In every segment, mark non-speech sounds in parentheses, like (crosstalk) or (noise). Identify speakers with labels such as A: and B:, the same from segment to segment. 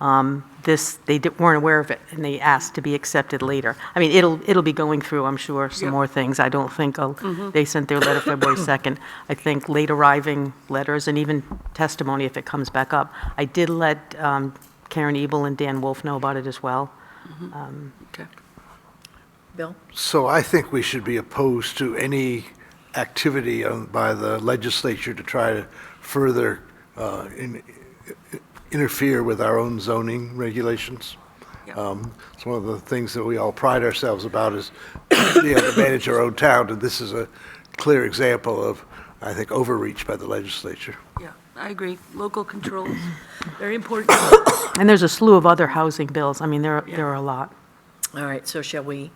A: um, this, they di- weren't aware of it, and they asked to be accepted later. I mean, it'll, it'll be going through, I'm sure, some more things. I don't think, uh, they sent their letter February (coughs) 2nd. I think late arriving letters and even testimony if it comes back up. I did let um, Karen Ebel and Dan Wolf know about it as well.
B: Okay.
C: Bill?
D: So I think we should be opposed to any activity on- by the legislature to try to further uh, in- interfere with our own zoning regulations.
B: Yeah.
D: Um, It's one of the things that we all pride ourselves about is (coughs) being able to manage our own town, and this is a clear example of, I think, overreach by the legislature.
B: Yeah, I agree. Local controls, very important. (coughs)
A: And there's a slew of other housing bills. I mean, there, there are a lot.
C: All right, so shall we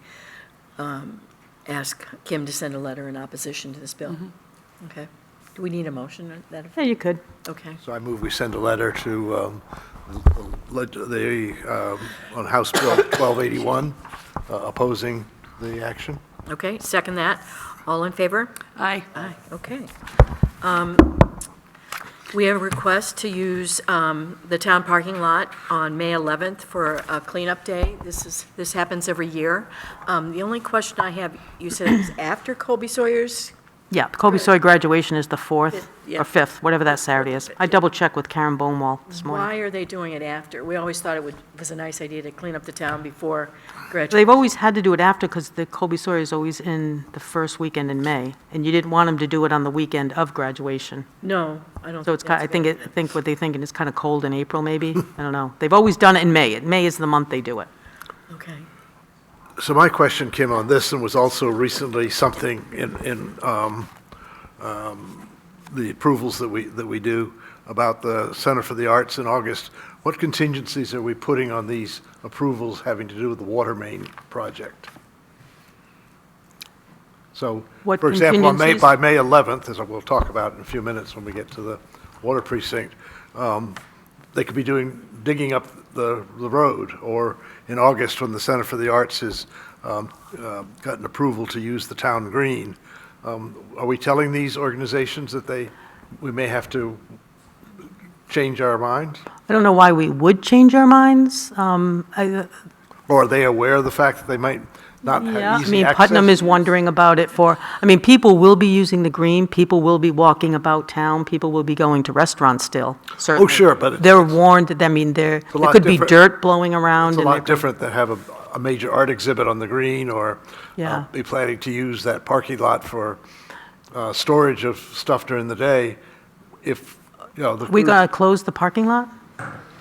C: um, ask Kim to send a letter in opposition to this bill? Okay. Do we need a motion or that?
A: Yeah, you could.
C: Mm-hmm. Okay.
D: So I move we send a letter to, um, leg- the, um, on House Bill 1281, uh, opposing the action.
C: Okay, second that. All in favor?
B: Aye.
C: Aye, okay. Um, We have a request to use um, the town parking lot on May 11th for a cleanup day. This is, this happens every year. Um, The only question I have, you said it was after Colby Sawyer's?
A: Yeah, Kobe Soy graduation is the 4th
C: Yeah.
A: or 5th, whatever that Saturday is. I double-checked with Karen Bonewall this morning.
C: Why are they doing it after? We always thought it would, was a nice idea to clean up the town before graduation.
A: They've always had to do it after, because the Colby Sawyer is always in the first weekend in May, and you didn't want them to do it on the weekend of graduation.
C: No, I don't.
A: So it's, ki- I
C: that's
A: think,
C: good.
A: it- I think what they're thinking is kind of cold in April, maybe? I don't know. They've always done it in May. May is the month they do it.
C: Okay,
D: So my question, Kim, on this, and was also recently something in, in um, um, the approvals that we, that we do about the Center for the Arts in August, what contingencies are we putting on these approvals having to do with the water main project? So,
A: What
D: for example, on May,
A: contingencies?
D: by May 11th, as we'll talk about in a few minutes when we get to the water precinct, um, they could be doing, digging up the, the road, or in August, when the Center for the Arts has um, uh, gotten approval to use the town green. Um, Are we telling these organizations that they, we may have to change our mind?
A: I don't know why we would change our minds. Um, I-
D: Or are they aware of the fact that they might not
A: Yeah,
D: have
A: I
D: easy
A: mean,
D: access?
A: Putnam is wondering about it for, I mean, people will be using the green, people will be walking about town, people will be going to restaurants still, certainly.
D: Oh, sure, but it-
A: They're warned, that- I mean, there,
D: a
A: there
D: lot
A: could be
D: different-
A: dirt blowing around.
D: It's a
A: and
D: lot
A: there-
D: different than have a, a major art exhibit on the green or uh,
A: Yeah.
D: be planning to use that parking lot for uh, storage of stuff during the day if, you know, the.
A: We gonna close the parking lot?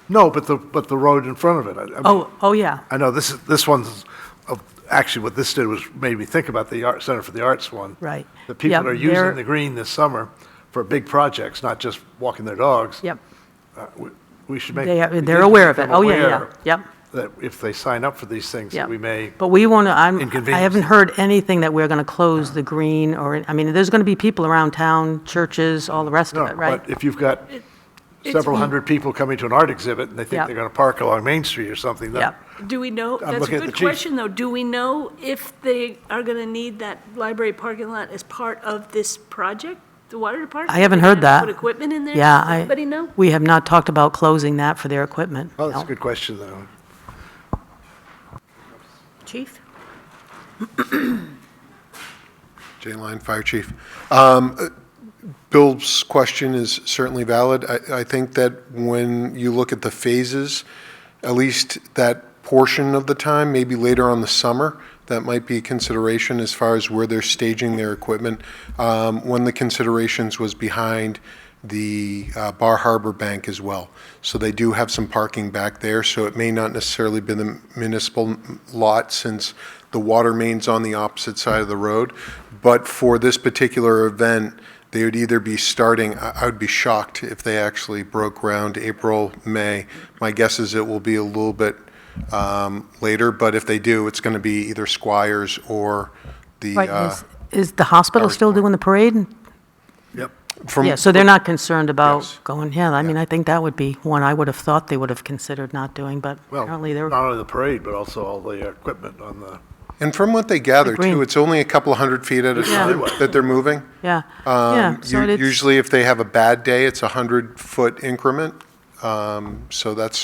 D: No, but the, but the road in front of it. I- I-
A: Oh, oh, yeah.
D: I know this, is this one's, uh, actually what this did was made me think about the Art Center for the Arts one.
A: Right.
D: The people
A: Yep,
D: are
A: they're-
D: using the green this summer for big projects, not just walking their dogs.
A: Yep.
D: Uh, we- We should make.
A: They,
D: we
A: are-
D: need
A: they're
D: to
A: aware
D: make
A: of it.
D: them
A: Oh, yeah, yeah,
D: aware
A: yep,
D: That if they sign up for these things, that
A: yep.
D: we may.
A: But uh, we wanna, I'm, I
D: inconvenience
A: haven't
D: them.
A: heard anything that we're gonna close the green or, I mean, there's gonna be people around town, churches, all the rest
D: No,
A: of it, right?
D: But if you've got several hundred people coming to an art exhibit and they think
A: Yep.
D: they're going to park along Main Street or something, then.
A: Yep.
B: Do we know, that's
D: looking
B: a
D: at the
B: good
D: chief.
B: question, though. Do we know if they are going to need that library parking lot as part of this project, the water department?
A: I haven't
B: Are they
A: heard
B: gonna
A: that.
B: Put equipment in there?
A: Yeah,
B: Does
A: I.
B: Anybody know?
A: We have not talked about closing that for their equipment.
D: Oh, that's a
A: No.
D: good question, though.
C: chief?
E: Jane Line, Fire Chief. Um, uh, Bill's question is certainly valid. I, I think that when you look at the phases, at least that portion of the time, maybe later on the summer, that might be a consideration as far as where they're staging their equipment. Um, One of the considerations was behind the uh, Bar Harbor Bank as well. So they do have some parking back there, so it may not necessarily be the municipal lot since the water main's on the opposite side of the road. But for this particular event, they would either be starting, I I would be shocked if they actually broke ground April, May. My guess is it will be a little bit um, later, but if they do, it's going to be either Squires or the,
A: Right,
E: uh,
A: is- Is the hospital
E: Howard's
A: still
E: Point.
A: doing the parade?
D: Yep.
E: from.
A: Yeah, so they're not concerned about
E: Yes.
A: going, yeah, I mean, I think that would be one I would have thought they would have considered not doing, but
D: Well,
A: apparently they're,
D: not only the parade, but also all the equipment on the.
E: And from what they gather
A: Green.
E: too, it's only a couple of hundred feet at a
A: Yeah.
E: time that they're moving.
A: yeah,
E: Um,
A: yeah. so
E: u-
A: it's-
E: Usually if they have a bad day, it's a hundred-foot increment. Um, So that's